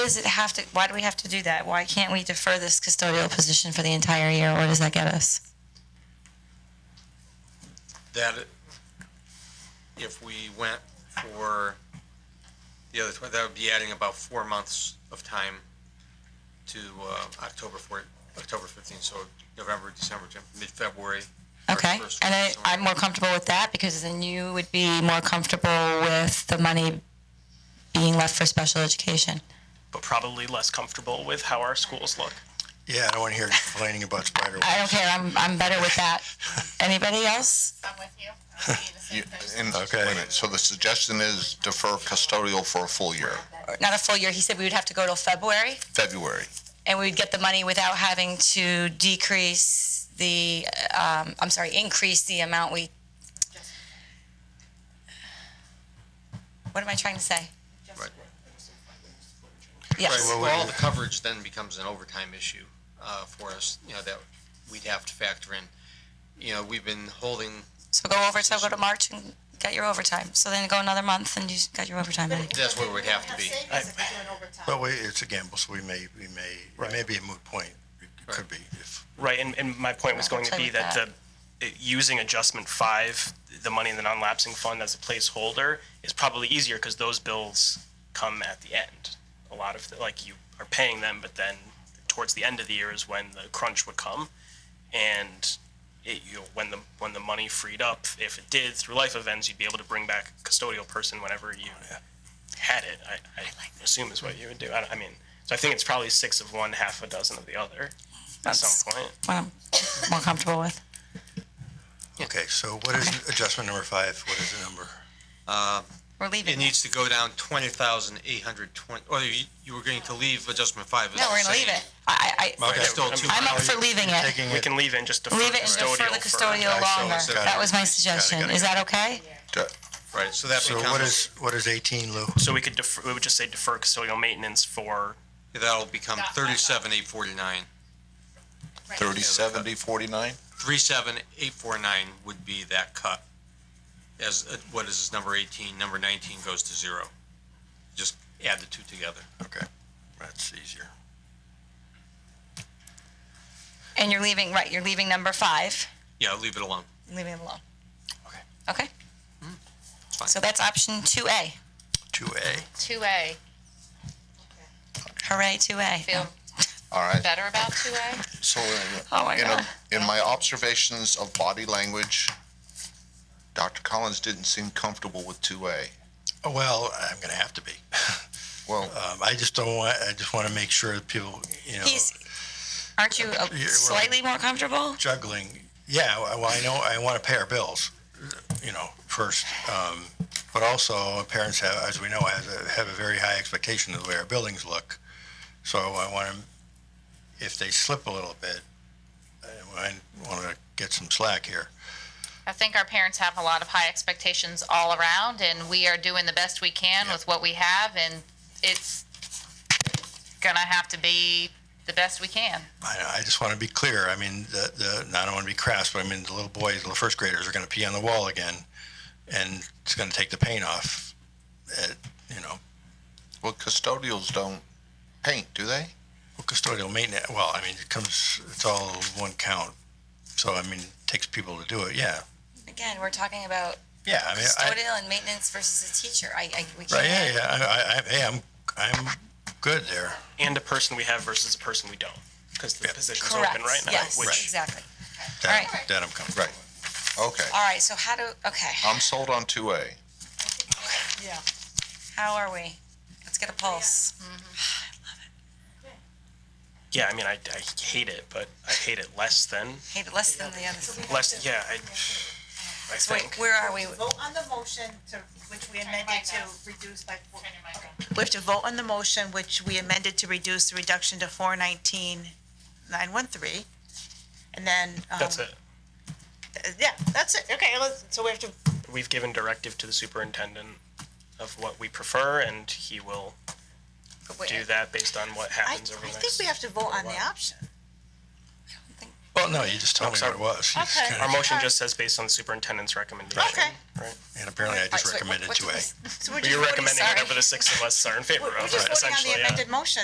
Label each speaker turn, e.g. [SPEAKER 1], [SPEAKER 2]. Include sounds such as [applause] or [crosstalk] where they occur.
[SPEAKER 1] does it have to, why do we have to do that? Why can't we defer this custodial position for the entire year? Where does that get us?
[SPEAKER 2] that if we went for the other, tw- that would be adding about four months of time to uh, October 4, October 15, so November, December, Jan- mid-February. first-
[SPEAKER 1] Okay,
[SPEAKER 2] first
[SPEAKER 1] and
[SPEAKER 2] week,
[SPEAKER 1] I,
[SPEAKER 2] so-
[SPEAKER 1] I'm more comfortable with that because then you would be more comfortable with the money being left for special education.
[SPEAKER 3] but probably less comfortable with how our schools look.
[SPEAKER 4] Yeah, I don't want to hear you complaining about
[SPEAKER 1] I
[SPEAKER 4] spider webs.
[SPEAKER 1] don't care, I'm, I'm better with that. Anybody else?
[SPEAKER 5] I'm with you. I'm with you the same
[SPEAKER 6] You-
[SPEAKER 5] person.
[SPEAKER 6] and-
[SPEAKER 4] Okay.
[SPEAKER 6] wait a minute. So the suggestion is defer custodial for a full year,
[SPEAKER 1] Not a full year, he said we would have to go till February
[SPEAKER 6] February.
[SPEAKER 1] and we would get the money without having to decrease the, um, I'm sorry, increase the amount we. What am I trying to say?
[SPEAKER 2] Right. Right,
[SPEAKER 1] Yes.
[SPEAKER 2] well, all the coverage then becomes an overtime issue uh, for us, you know, that we'd have to factor in. You know, we've been holding,
[SPEAKER 1] So go over to go to March and get your overtime. So then go another month and you got your overtime money.
[SPEAKER 2] that's where we'd have to be.
[SPEAKER 5] Savings if we're doing overtime.
[SPEAKER 4] But wait, it's a gamble, so we may, we may, it may be a moot point. It could be. if-
[SPEAKER 3] Right, and, and my point was going to
[SPEAKER 1] Play
[SPEAKER 3] be
[SPEAKER 1] with
[SPEAKER 3] that the, it- using adjustment five, the money in the non-lapsing fund as a placeholder is probably easier because those bills come at the end. A lot of, the- like, you are paying them, but then towards the end of the year is when the crunch would come. And it, you, when the, when the money freed up, if it did through life events, you'd be able to bring back a custodial person whenever you had it, I, I assume is what you would do. I, I mean, so I think it's probably six of one, half a dozen of the other at
[SPEAKER 1] That's
[SPEAKER 3] some point.
[SPEAKER 1] what I'm more comfortable with.
[SPEAKER 4] Okay, so what is adjustment number five? What is the number?
[SPEAKER 1] We're leaving.
[SPEAKER 2] It needs to go down 20,820, or you you were going to leave adjustment five. as
[SPEAKER 1] no,
[SPEAKER 2] the
[SPEAKER 1] we're gonna
[SPEAKER 2] same.
[SPEAKER 1] leave it. I, I, I
[SPEAKER 2] It's still
[SPEAKER 3] I'm-
[SPEAKER 2] two
[SPEAKER 1] I'm up
[SPEAKER 2] hours.
[SPEAKER 1] for leaving it.
[SPEAKER 4] Taking
[SPEAKER 3] We
[SPEAKER 4] it-
[SPEAKER 3] can leave it and just defer
[SPEAKER 1] Leave it and
[SPEAKER 3] custodial.
[SPEAKER 1] defer the
[SPEAKER 3] for-
[SPEAKER 1] custodial
[SPEAKER 4] Okay, so
[SPEAKER 1] longer.
[SPEAKER 4] it's gotta
[SPEAKER 1] That
[SPEAKER 4] be-
[SPEAKER 1] was my
[SPEAKER 4] gotta-
[SPEAKER 1] suggestion.
[SPEAKER 4] gotta-
[SPEAKER 1] Is that okay?
[SPEAKER 6] De-
[SPEAKER 2] Right, so that
[SPEAKER 4] So what
[SPEAKER 2] becomes,
[SPEAKER 4] is, what is eighteen, Lou?
[SPEAKER 3] So we could defer, we would just say defer custodial maintenance for,
[SPEAKER 2] that'll become 37,849.
[SPEAKER 6] Thirty, seventy, forty-nine?
[SPEAKER 2] 37849 would be that cut. As, uh, what is this, number 18, number 19 goes to zero. Just add the two together.
[SPEAKER 4] Okay, that's easier.
[SPEAKER 1] And you're leaving, right, you're leaving number five,
[SPEAKER 2] Yeah, leave it alone.
[SPEAKER 1] leaving it alone.
[SPEAKER 4] Okay. Mm-hmm.
[SPEAKER 1] Okay?
[SPEAKER 2] fine.
[SPEAKER 1] So that's option two A.
[SPEAKER 4] Two A.
[SPEAKER 5] Two A.
[SPEAKER 1] Hooray, two A.
[SPEAKER 5] Feel
[SPEAKER 6] All right.
[SPEAKER 5] better about two A?
[SPEAKER 6] So in-
[SPEAKER 1] [laughs] Oh my
[SPEAKER 6] in,
[SPEAKER 1] God.
[SPEAKER 6] a- in my observations of body language, Dr. Collins didn't seem comfortable with two A.
[SPEAKER 4] Well, I'm gonna have to be.
[SPEAKER 6] Well,
[SPEAKER 4] Um, I just don't want, I just want to make sure that people, you know,
[SPEAKER 1] He's, aren't you uh,
[SPEAKER 4] we're-
[SPEAKER 1] slightly more comfortable?
[SPEAKER 4] juggling. Yeah, I- well, I know, I want to pay our bills, you know, first. Um, but also parents have, as we know, has a, have a very high expectation of the way our buildings look. So I want to, if they slip a little bit, I want to get some slack here.
[SPEAKER 5] I think our parents have a lot of high expectations all around, and we are doing the best we can
[SPEAKER 4] Yep.
[SPEAKER 5] with what we have, and it's gonna have to be the best we can.
[SPEAKER 4] I, I just want to be clear. I mean, the, the, and I don't want to be crass, but I mean, the little boys, the first graders are going to pee on the wall again, and it's going to take the paint off. At, you know,
[SPEAKER 6] well, custodials don't paint, do they?
[SPEAKER 4] custodial maintenance. Well, I mean, it comes, it's all one count. So, I mean, it takes people to do it. Yeah.
[SPEAKER 1] Again, we're talking about
[SPEAKER 4] Yeah. I mean, I,
[SPEAKER 1] custodial and maintenance versus a teacher. I, I, we can't.
[SPEAKER 4] right. Yeah. Yeah. I, I, I, hey, I'm, I'm good there.
[SPEAKER 3] and a person we have versus a person we don't, because the
[SPEAKER 4] Yeah.
[SPEAKER 3] position's
[SPEAKER 1] Correct.
[SPEAKER 3] open right now.
[SPEAKER 1] Yes,
[SPEAKER 3] Which,
[SPEAKER 1] exactly.
[SPEAKER 4] That,
[SPEAKER 1] All right.
[SPEAKER 4] that I'm comfortable
[SPEAKER 6] Right. Okay,
[SPEAKER 1] All right, so how do, okay,
[SPEAKER 6] I'm sold on two A.
[SPEAKER 1] how are we? Let's get a pulse.
[SPEAKER 3] yeah, I mean, I, I hate it, but I hate it less than,
[SPEAKER 1] Hate it less than the others.
[SPEAKER 3] less, yeah, I, I
[SPEAKER 1] Wait,
[SPEAKER 3] think.
[SPEAKER 1] where are we?
[SPEAKER 7] Vote on the motion to, which we amended to reduce by, four-
[SPEAKER 5] your mic on.
[SPEAKER 7] okay. we have to vote on the motion which we amended to reduce the reduction to four nineteen, nine one three. And then, um.
[SPEAKER 3] That's it.
[SPEAKER 7] th- Yeah, that's it. Okay, let's, so we have to,
[SPEAKER 3] We've given directive to the superintendent of what we prefer, and he will do that based on what
[SPEAKER 7] I, I
[SPEAKER 3] happens over the
[SPEAKER 7] think
[SPEAKER 3] next.
[SPEAKER 7] we have to vote on the
[SPEAKER 3] while.
[SPEAKER 7] option.
[SPEAKER 3] Well,
[SPEAKER 4] no, you just told me what it was. You just
[SPEAKER 7] Okay.
[SPEAKER 4] kinda-
[SPEAKER 3] Our motion just says based on the superintendent's recommendation.
[SPEAKER 7] Okay.
[SPEAKER 3] Right.
[SPEAKER 4] And
[SPEAKER 3] Oh,
[SPEAKER 4] apparently I just recommended two A.
[SPEAKER 7] So we're
[SPEAKER 3] But
[SPEAKER 7] just
[SPEAKER 3] you're
[SPEAKER 7] voting-
[SPEAKER 3] recommending
[SPEAKER 7] sorry.
[SPEAKER 3] whatever the six of us are in favor
[SPEAKER 7] We're
[SPEAKER 3] of,
[SPEAKER 7] just voting on
[SPEAKER 3] essentially,
[SPEAKER 7] the
[SPEAKER 3] yeah.
[SPEAKER 7] amended motion.